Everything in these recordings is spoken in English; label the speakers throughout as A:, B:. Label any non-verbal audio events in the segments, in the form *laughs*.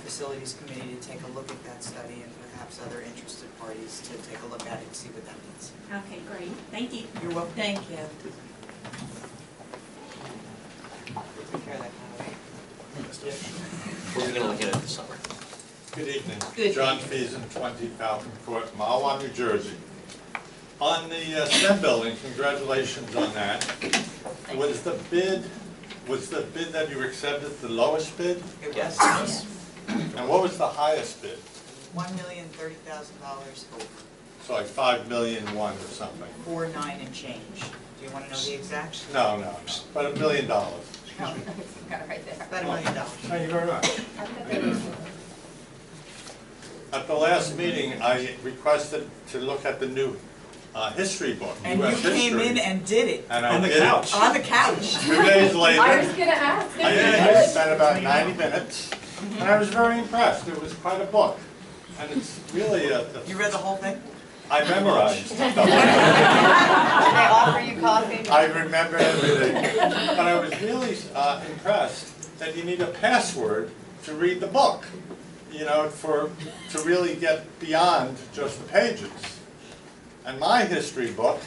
A: facilities committee to take a look at that study and perhaps other interested parties to take a look at it and see what that means.
B: Okay, great, thank you.
A: You're welcome.
C: Thank you.
A: Take care of that, Conway.
D: What are we gonna look at it this summer?
E: Good evening.
C: Good
E: John
C: evening.
E: Feason, 20 Falcon Court, Mawa, New Jersey. On the uh, STEM building, congratulations on that. Was the bid, was the bid that you accepted the lowest bid?
A: It was
E: And what was the highest bid?
A: one million thirty thousand dollars over,
E: So like 5 million one or something?
A: four nine and change. Do you wanna know the exact?
E: No, no, no, but a million dollars.
A: No,
F: Got it right there.
A: about a million dollars.
E: Thank you very much.
F: I thought that was-
E: At the last meeting, I requested to look at the new uh, history book,
A: And you
E: US history.
A: came in and did it,
E: And I
G: On the
E: did it.
G: couch.
A: on the couch.
E: Two days later.
F: I was gonna ask.
E: I had spent about ninety minutes, and I was very impressed, it was quite a book. And it's really a,
A: You read the whole thing? *laughs*
E: I memorized the whole
F: Did they offer you coffee?
E: *laughs* I remember everything. But I was really uh, impressed that you need a password to read the book, you know, for, to really get beyond just the pages. And my history book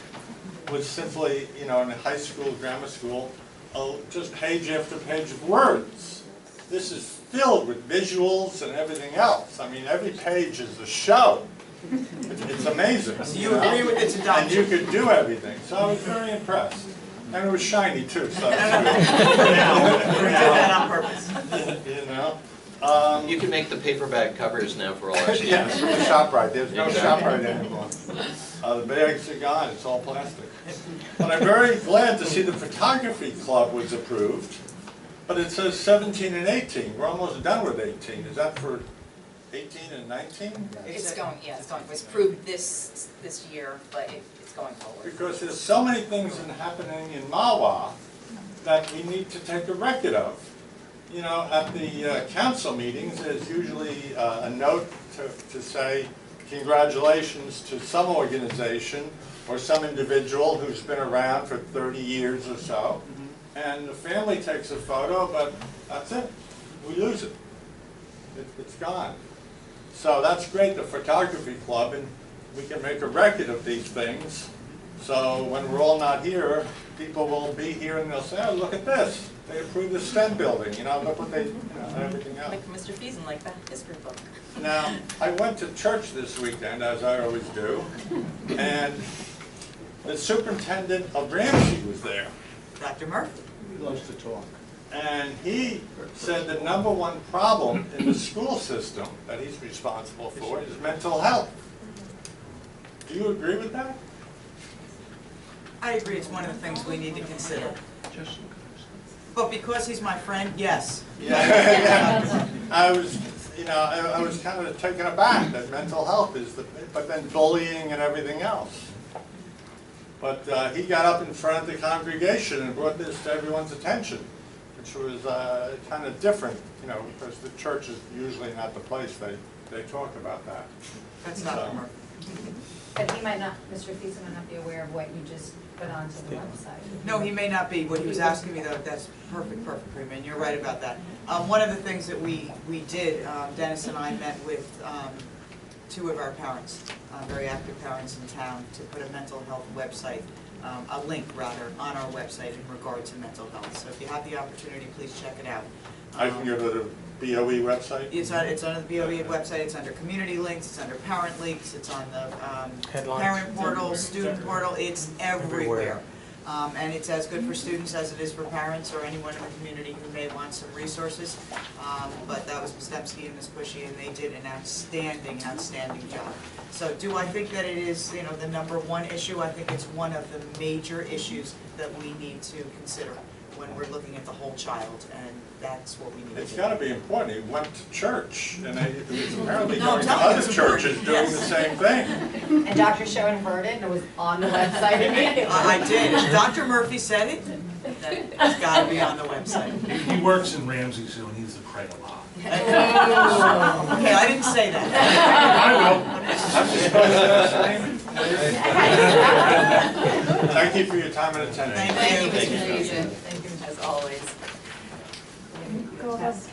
E: was simply, you know, in high school, grammar school, uh, just page after page of words. This is filled with visuals and everything else. I mean, every page is a show. It's it's amazing.
A: So you
E: know?
A: agree with its
E: And you
A: adoption?
E: could do everything, so I was very impressed. And it was shiny too, so
A: We
E: that's
A: did that on purpose.
E: good, *laughs* you know? Um, *laughs*
D: You can make the paper bag covers now for all our students.
E: Yes, the ShopRite, there's no
D: Exactly.
E: ShopRite anymore. Uh, The bags are gone, it's all plastic. But I'm very glad to see the photography club was approved, but it says seventeen and eighteen, we're almost done with eighteen. Is that for eighteen and nineteen?
F: It's going, yeah, it's going, it was proved this, this year, but it- it's going forward.
E: Because there's so many things in- happening in Mawa that we need to take a record of. You know, at the uh, council meetings, there's usually uh, a note to, to say, congratulations to some organization or some individual who's been around for thirty years or so. And the family takes a photo, but that's it, we lose it. It- It's gone. So that's great, the photography club, and we can make a record of these things. So when we're all not here, people will be here and they'll say, oh, look at this, they approved the STEM building, you know, look what they, you know, and everything else.
F: Like Mr. Feason, like that history book.
E: Now, I went to church this weekend, as I always do, and the superintendent of Ramsey was there.
A: Dr. Murphy?
G: Loves to talk.
E: And he said the number one problem in the school system that he's responsible for is mental health. Do you agree with that?
A: I agree, it's one of the things we need to consider.
G: Just look
A: But because he's my friend, yes.
E: Yeah. I was, you know, I I was kind of taken aback that mental health is the, but then bullying and everything else. But uh, he got up in front of the congregation and brought this to everyone's attention, which was uh, kind of different, you know, because the church is usually not the place they, they talk about that.
A: That's Dr. Murphy.
H: But he might not, Mr. Thiessen might not be aware of what you just put onto the website.
A: No, he may not be, what he was asking me though, that's perfect, perfect, Rima, and you're right about that. Um, one of the things that we, we did, um, Dennis and I met with, um, two of our parents, uh, very active parents in town, to put a mental health website, um, a link rather, on our website in regard to mental health. So if you have the opportunity, please check it out.
E: I can go to the BOE website.
A: It's on, it's on the BOE website, it's under community links, it's under parent links, it's on the, um, parent portal, student portal, it's everywhere. Um, and it's as good for students as it is for parents or anyone in the community who may want some resources. Um, but that was Postepsky and Ms. Bushy, and they did an outstanding, outstanding job. So do I think that it is, you know, the number one issue? I think it's one of the major issues that we need to consider when we're looking at the whole child, and that's what we need to do.
E: It's gotta be important, he went to church, and they- it was apparently
A: No, I'm
E: going
A: telling
E: to
A: you,
E: other
A: it's important.
E: churches doing the
A: Yes.
E: same
A: *laughs*
E: thing.
H: And Dr. Schoen heard it and it was on
F: *laughs*
H: the website immediately.
A: I I
H: *laughs*
A: did, if Dr. Murphy said it, then it's gotta be on the website.
G: He works in Ramsey, so he needs to pray a lot.
A: Okay, I didn't say that.
H: *laughs*
E: I'm just going to Thank you for your time and attention.
A: Thank you.
F: Thank you,
D: Thank you.
F: Mr. Feason, thank you as always.
H: Go ahead.